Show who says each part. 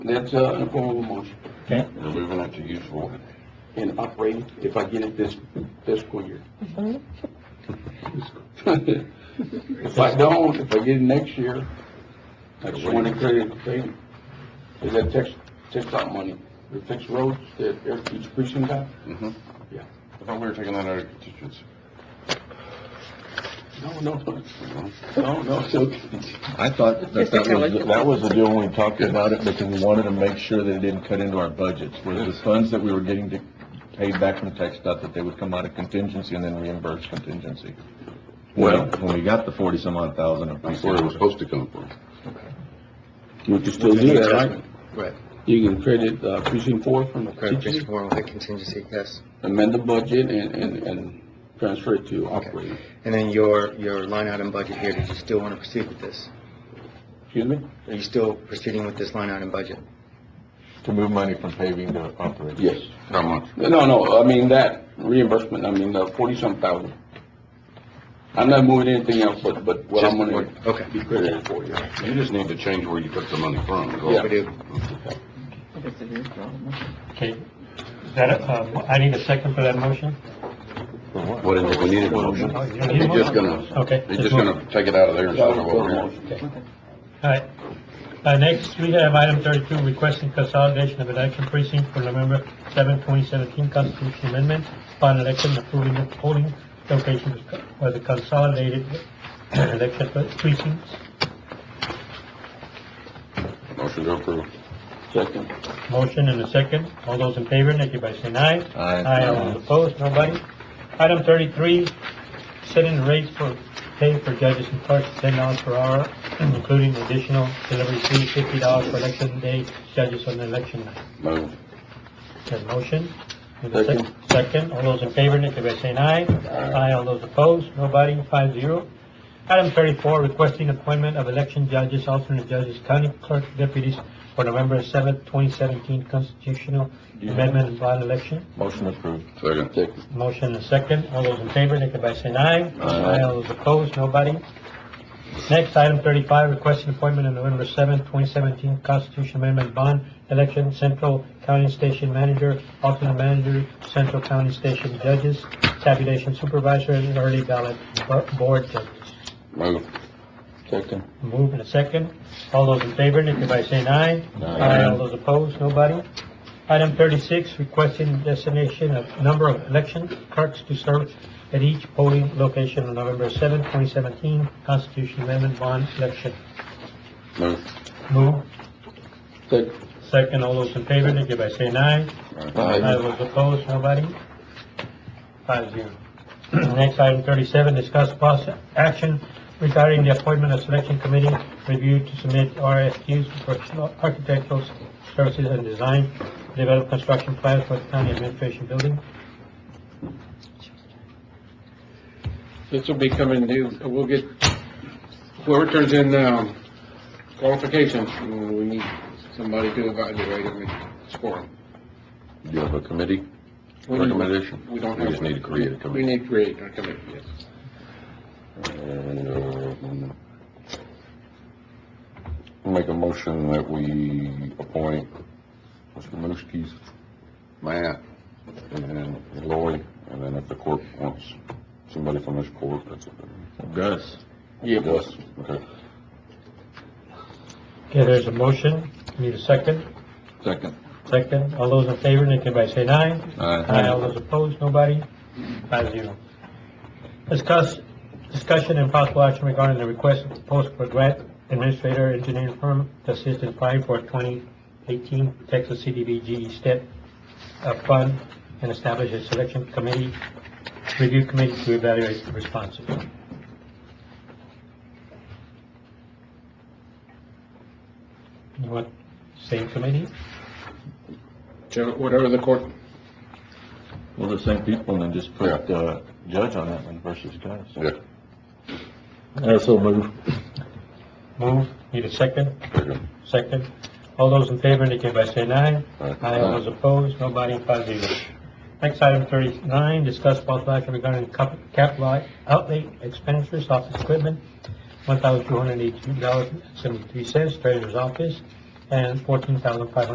Speaker 1: that's, uh, in the form of a motion.
Speaker 2: Okay.
Speaker 1: We're moving that to use for and operating, if I get it this fiscal year. If I don't, if I get it next year, I just want to clear the thing. Is that tax, tax out money, the fixed roads that every- each precinct got?
Speaker 3: Mm-hmm.
Speaker 1: Yeah.
Speaker 3: I thought we were taking that out of contingency.
Speaker 1: No, no, no,
Speaker 3: Mm-hmm.
Speaker 1: no, no, it's okay.
Speaker 4: I thought that that was, that was the deal when we talked about it, because we wanted to make sure that it didn't cut into our budgets, was the funds that we were getting to pay back from tech stuff, that they would come out of contingency and then reimburse contingency. Well, when we got the forty-some odd thousand of
Speaker 3: That's where it was supposed to come from.
Speaker 1: You can still do that, right?
Speaker 5: Right.
Speaker 1: You can credit, uh, precinct four from the
Speaker 5: Correct,
Speaker 1: contingency,
Speaker 5: Mr. Warren, with the contingency, yes.
Speaker 1: amend the budget and, and, and transfer it to operating.
Speaker 5: And then your, your line item budget here, did you still want to proceed with this?
Speaker 1: Excuse me?
Speaker 5: Are you still proceeding with this line item budget?
Speaker 4: to move money from paving to operating.
Speaker 1: Yes.
Speaker 3: How much?
Speaker 1: No, no, I mean that reimbursement, I mean, the forty-some thousand. I'm not moving anything else, but, but what I'm
Speaker 5: Just-
Speaker 1: gonna
Speaker 5: Okay.
Speaker 1: be credited for, yeah.
Speaker 3: You just need to change where you took the money from. is all.
Speaker 1: Yeah.
Speaker 5: We do.
Speaker 2: Okay. Is that, a- um, I need a second for that motion?
Speaker 3: What is it? We need a motion.
Speaker 2: Oh, you don't need a
Speaker 3: You're just
Speaker 2: motion?
Speaker 3: gonna,
Speaker 2: Okay.
Speaker 3: you're just gonna take it out of there and start it over here.
Speaker 2: All right. Uh, next, we have item thirty-two, requesting consolidation of election precinct for November seventh, twenty seventeen constitution amendment, final election approving the polling location for the consolidated election precincts.
Speaker 3: Motion to approve.
Speaker 1: Second.
Speaker 2: Motion and a second. All those in favor, indicate by saying aye.
Speaker 4: Aye.
Speaker 2: all those opposed, nobody. Item thirty-three, setting rates for pay for judges and clerks, ten dollars per hour, including additional delivery fee, fifty dollars for election day, judges on election night.
Speaker 3: Move.
Speaker 2: There's a motion. Need a sec- Second, all those in favor, indicate by saying aye. Aye, all those opposed, nobody, five zero. Item thirty-four, requesting appointment of election judges, alternate judges, county clerk deputies for November seventh, twenty seventeen constitutional amendment and by election.
Speaker 4: Motion approved.
Speaker 3: Second.
Speaker 2: Motion and second, all those in favor, indicate by saying aye. Aye, all those opposed, nobody. Next, item thirty-five, requesting appointment of November seventh, twenty seventeen Constitution Amendment Bond Election, Central County Station Manager, Alternate Manager, Central County Station Judges, Tabulation Supervisor, and Early Ballot Bo- Board Judges.
Speaker 3: Move.
Speaker 1: Second.
Speaker 2: Move in a second. All those in favor, indicate by saying aye. Aye. All those opposed, nobody. Item thirty-six, requesting destination of number of election clerks to serve at each polling location on November seventh, twenty seventeen, Constitution Amendment Bond Election.
Speaker 3: Move.
Speaker 2: Move.
Speaker 1: Second.
Speaker 2: Second, all those in favor, indicate by saying aye. I was opposed, nobody? Five zero. Next, item thirty-seven, discuss possible action regarding the appointment of selection committee review to submit RFQs for architectural services and design, develop construction plans for the county administration building.
Speaker 6: This will be coming due, we'll get, whoever turns in, um, qualifications, we need somebody to evaluate them and score them.
Speaker 3: You have a committee
Speaker 6: We need-
Speaker 3: recommendation?
Speaker 6: We don't have.
Speaker 3: We just need to create a
Speaker 6: We
Speaker 3: committee.
Speaker 6: need to create a committee, yes.
Speaker 3: And, uh, Make a motion that we appoint Mr. Mooskis, Matt, and then Lloyd, and then if the court wants somebody from this court, that's it.
Speaker 4: Gus,
Speaker 1: Yeah, boss.
Speaker 3: Yes, okay.
Speaker 2: Okay, there's a motion, need a second?
Speaker 4: second.
Speaker 2: Second, all those in favor, indicate by saying aye.
Speaker 4: Aye.
Speaker 2: Aye, all those opposed, nobody? Five zero. Discuss, discussion and possible action regarding the request proposed for grant administrator engineering firm to assist in applying for twenty eighteen Texas CDBG step uh, fund and establish a selection committee, review committee to evaluate the responses. You want same committee?
Speaker 6: So Whatever the court,
Speaker 4: Well, the same people, and then just put, uh, Judge on that one versus Gus.
Speaker 3: Yeah.
Speaker 4: I so move.
Speaker 2: Move, need a second?
Speaker 3: Second.
Speaker 2: Second. All those in favor indicate by saying aye.
Speaker 3: Aye.
Speaker 2: All those opposed, nobody, five zero. Next item thirty-nine, discuss possible action regarding cap- capital outlay expenditures, office equipment, one thousand two hundred eighty-two dollars seventy-three cents, treasurer's office, and fourteen thousand five hundred